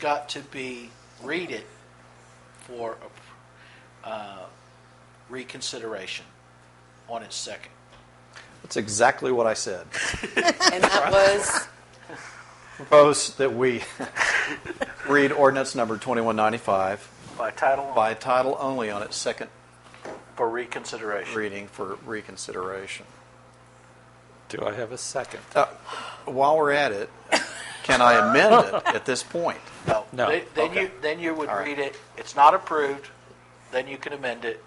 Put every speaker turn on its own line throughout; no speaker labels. got to be, read it for uh, reconsideration on its second.
That's exactly what I said.
And that was,
Propose that we read ordinance number 2195
By title only.
by title only on its second
For reconsideration.
reading for reconsideration.
Do I have a second?
Uh, While we're at it, can I amend it at this point?
No.
No.
Then- Then
Okay.
you, then you would
All right.
read it, it's not approved, then you can amend it,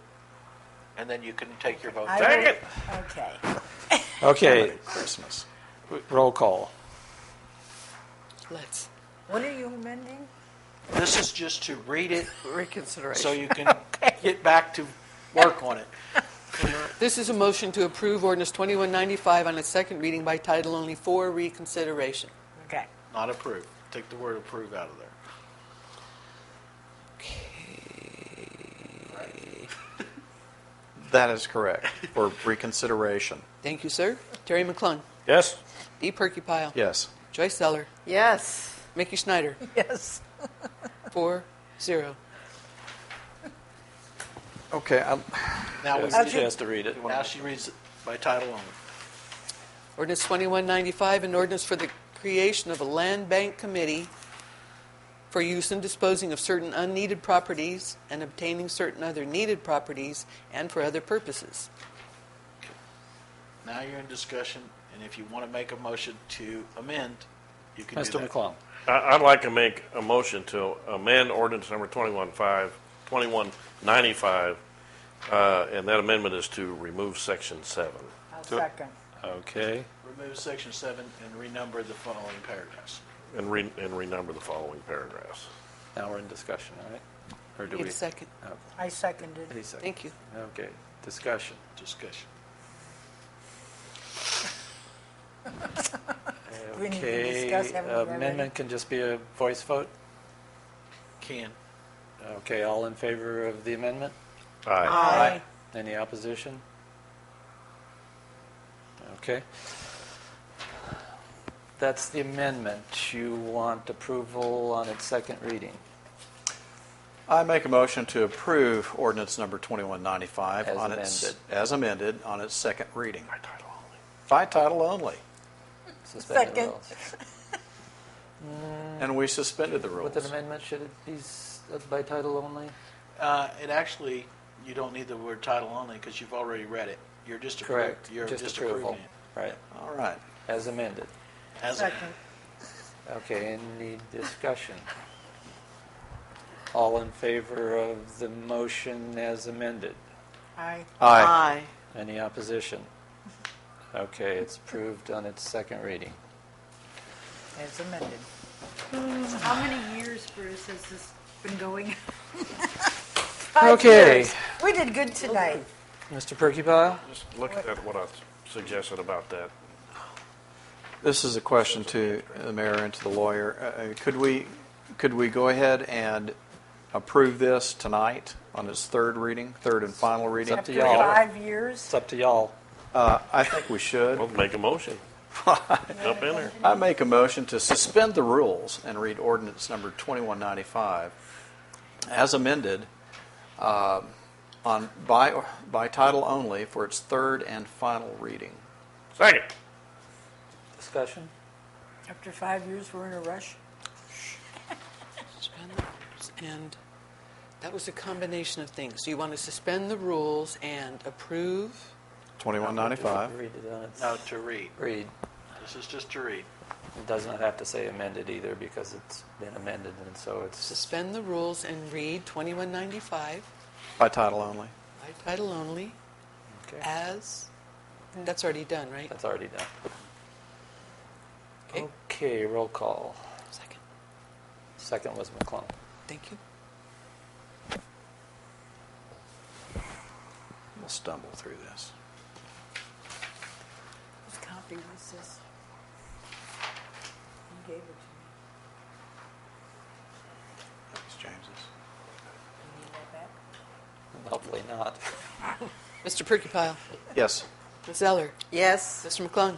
and then you can take your vote.
I
Dang
will-
it.
Okay.
Okay,
Christmas.
roll call.
let's,
What are you amending?
This is just to read it so
reconsideration.
you can get back to work on it.
This is a motion to approve ordinance 2195 on its second reading by title only for reconsideration.
Okay.
Not approved. Take the word approve out of there.
That is correct, for reconsideration.
Thank you, sir. Terry McClung,
Yes?
Dee Perkypile.
Yes.
Joyce Zeller,
Yes.
Mickey Schneider,
Yes.
four, zero.
Okay, I'm-
Now, we
Yes,
did-
She has to read it.
now she reads it by title only.
Ordinance 2195, an ordinance for the creation of a land bank committee for use in disposing of certain unneeded properties and obtaining certain other needed properties and for other purposes.
Now you're in discussion, and if you want to make a motion to amend, you can do
Mr.
that.
McClung.
I- I'd like to make a motion to amend ordinance number 21-5, 2195, uh, and that amendment is to remove section 7.
I'll second.
Okay,
Remove section seven and renumber the following paragraphs.
And re- and renumber the following paragraphs.
now we're in discussion, all right? Or do
Need
we?
a second.
Oh,
I seconded.
any second?
Thank you.
Okay, discussion.
Discussion.
We need to
Okay, uh,
discuss, haven't we already?
amendment can just be a voice vote?
Can.
Okay, all in favor of the amendment?
Aye.
Aye. Any opposition? Okay. That's the amendment. You want approval on its second reading
I make a motion to approve ordinance number 2195
As
on its,
amended.
as amended, on its second reading,
By title only.
by title only.
suspended
Second.
rules.
And we suspended the rules.
With an amendment, should it be s- by title only?
Uh, it actually, you don't need the word title only because you've already read it. You're just appro-
Correct.
You're
Just
just
approval.
approving it.
Right,
All right.
as amended.
As a-
Second.
Okay, any discussion? All in favor of the motion as amended?
Aye.
Aye.
Any opposition? Okay, it's approved on its second reading.
As amended.
How many years, Bruce, has this been going?
Five
Okay.
years. We did good tonight.
Mr. Perkypile?
Just look at what I suggested about that.
This is a question to the mayor and to the lawyer. Uh, uh, Could we, could we go ahead and approve this tonight on its third reading, third and final reading?
to
After
y'all.
five years.
It's up to y'all.
Uh, I think we should.
Well, make a motion. Jump in there.
I make a motion to suspend the rules and read ordinance number 2195 as amended um, on, by, by title only for its third and final reading.
Second.
Discussion?
After five years, we're in a rush.
Suspend the rules And that was a combination of things. So you want to suspend the rules and approve?
2195.
Read it on its.
no, to read.
Read.
This is just to read.
It does not have to say amended either because it's been amended and so it's.
Suspend the rules and read 2195
By title only.
by title only
Okay.
as, that's already done, right?
That's already done.
Okay.
Okay, roll call.
Second.
Second was McClung.
Thank you.
We'll stumble through this.
Whose copy was this? You gave it to me.
Thanks, James's.
You need that back?
Hopefully not.
Mr. Perkypile,
Yes.
Ms. Zeller,
Yes.
Mr. McClung,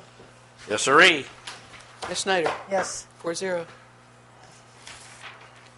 Yes, sirree.
Ms. Schneider,
Yes.
four zero.